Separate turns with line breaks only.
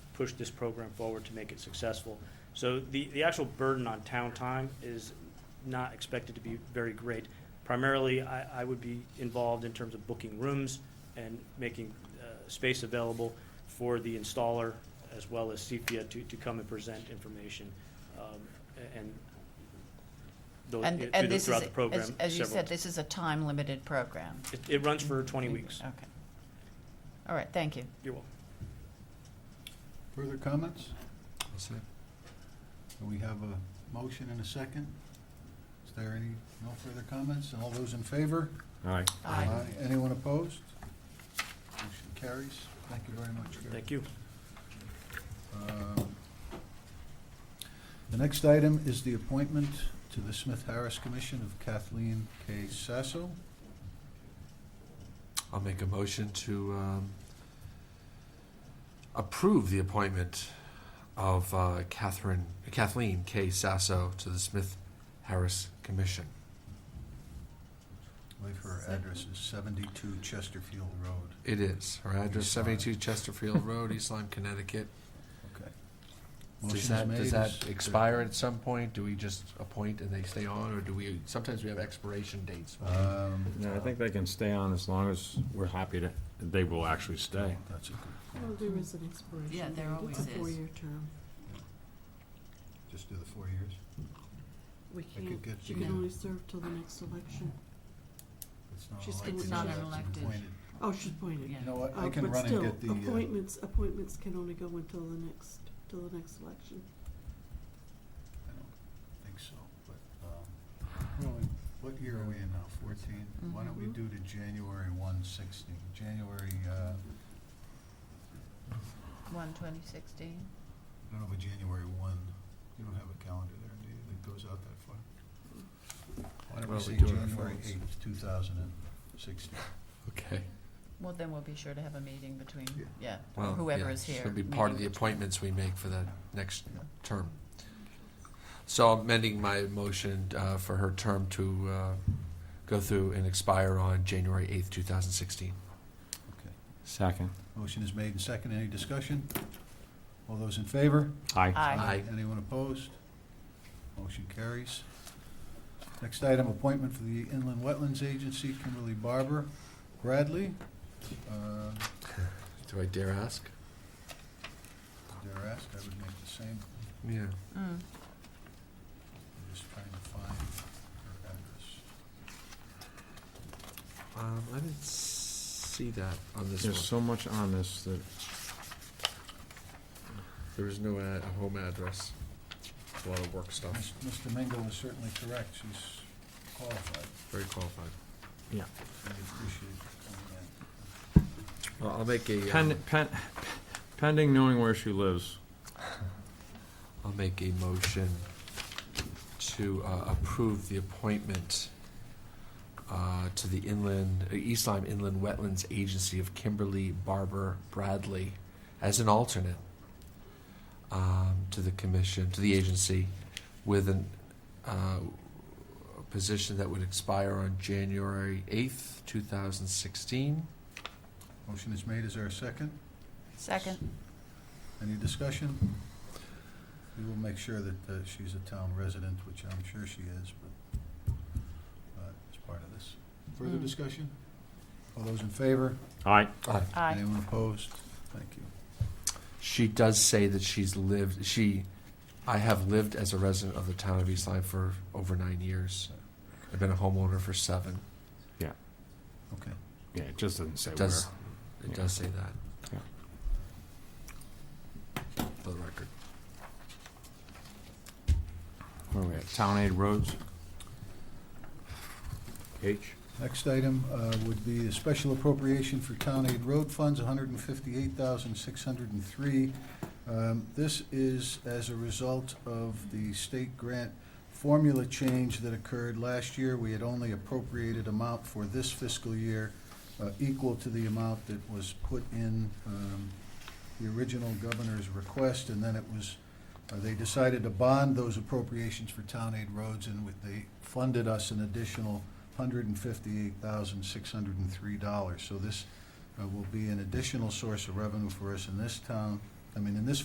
push this program forward to make it successful. So the, the actual burden on town time is not expected to be very great. Primarily, I, I would be involved in terms of booking rooms and making uh, space available for the installer as well as CFIA to, to come and present information um, a- and those,
And,
through
and
the-
this is,
throughout the program.
as, as you
several-
said, this is a time-limited program. Mm-hmm.
It, it runs for 20 weeks.
Okay. All right, thank you.
You're welcome.
Further comments?
That's it.
So We have a motion and a second. Is there any, no further comments? All those in favor?
All right.
Aye.
Anyone opposed? Motion carries. Thank you very much, Gary.
Thank you.
Um, The next item is the appointment to the Smith-Harris Commission of Kathleen K. Sasso.
I'll make a motion to um, approve the appointment of uh, Catherine, Kathleen K. Sasso to the Smith Harris Commission.
I believe her address is 72 Chesterfield Road.
It is, her address
East Lyme.
seventy-two Chesterfield Road, East Lyme, Connecticut.
Okay.
Does
Motion's
that,
made.
does
Is
that
there-
expire at some point? Do we just appoint and they stay on, or do we, sometimes we have expiration dates?
Um,
No, I think they can stay on as long as we're happy to, they will actually stay.
That's a good
Well,
point.
there is an expiration.
Yeah, there
date.
always
It's
is.
a four-year term.
Just do the four years.
We
I could
can't,
get, uh,
she
you
can
know,
only serve till the next election.
it's not
she's
elected,
been-
she's
not an
elected.
appointed.
Oh, she's appointed.
Yeah.
You know what, I
Uh,
can
But
run and
still,
get the, uh,
appointments, appointments can only go until the next, till the next election.
I don't think so, but, um, really, what year are we in now, fourteen? Why don't we
Mhm.
do the January one sixteen, January, uh,
One twenty sixteen.
I don't know, but January one, you don't have a calendar there, do you, that goes out that far? Why don't we
Well, we
say
do it on
January
phones.
eighth, two thousand and sixteen?
Okay.
Well, then we'll be sure to have a meeting between,
Yeah.
yeah,
Well,
whoever
yeah,
is here.
Should be part of the
meeting
appointments we make for the next
Yeah.
term. So I'm amending my motion uh, for her term to uh, go through and expire on January 8th, 2016.
Okay,
Second.
motion is made and second, any discussion? All those in favor?
between-
Aye.
Aye.
Aye.
Anyone opposed? Motion carries. Next item, appointment for the Inland Wetlands Agency, Kimberly Barber Bradley. Uh,
Do I dare ask?
Dare ask, I would make the same,
Yeah.
Mm.
I'm just trying to find her address.
Um, I didn't see that on this
There's
one.
so much on this that,
There is no ad- a home address. A lot of work stuff.
Mis- Mr. Mingo was certainly correct, she's qualified,
Very qualified.
we appreciate her
Well, I'll make a, um,
Pen- pen- pending knowing where she lives.
I'll make a motion to uh, approve the appointment uh, to the inland, uh, East Lyme Inland Wetlands Agency of Kimberly Barber Bradley as an alternate um, to the commission, to the agency, with an, uh, a position that would expire on January 8th, 2016.
coming in. Motion is made, is there a second?
Second,
Any discussion? We will make sure that uh, she's a town resident, which I'm sure she is, but uh, it's part of this. Further
Mm.
discussion? All those in favor?
Aye.
aye.
Anyone opposed? Thank you.
She does say that she's lived, she, I have lived as a resident of the town of East Lyme for over nine years. I've been a homeowner for seven.
Okay.
Yeah, it just doesn't say
It
where.
does, it does say
Yeah.
that. For the record.
Where are we at? Town aid roads? H?
Next item uh, would be a special appropriation for town aid road funds, $158,603. Um, This is as a result of the state grant formula change that occurred last year. We had only appropriated amount for this fiscal year uh, equal to the amount that was put in um, the original governor's request, and then it was, uh, they decided to bond those appropriations for town aid roads, and with- they funded us an additional hundred and fifty-eight thousand, six hundred and three dollars. So this uh, will be an additional source of revenue for us in this town, I mean, in this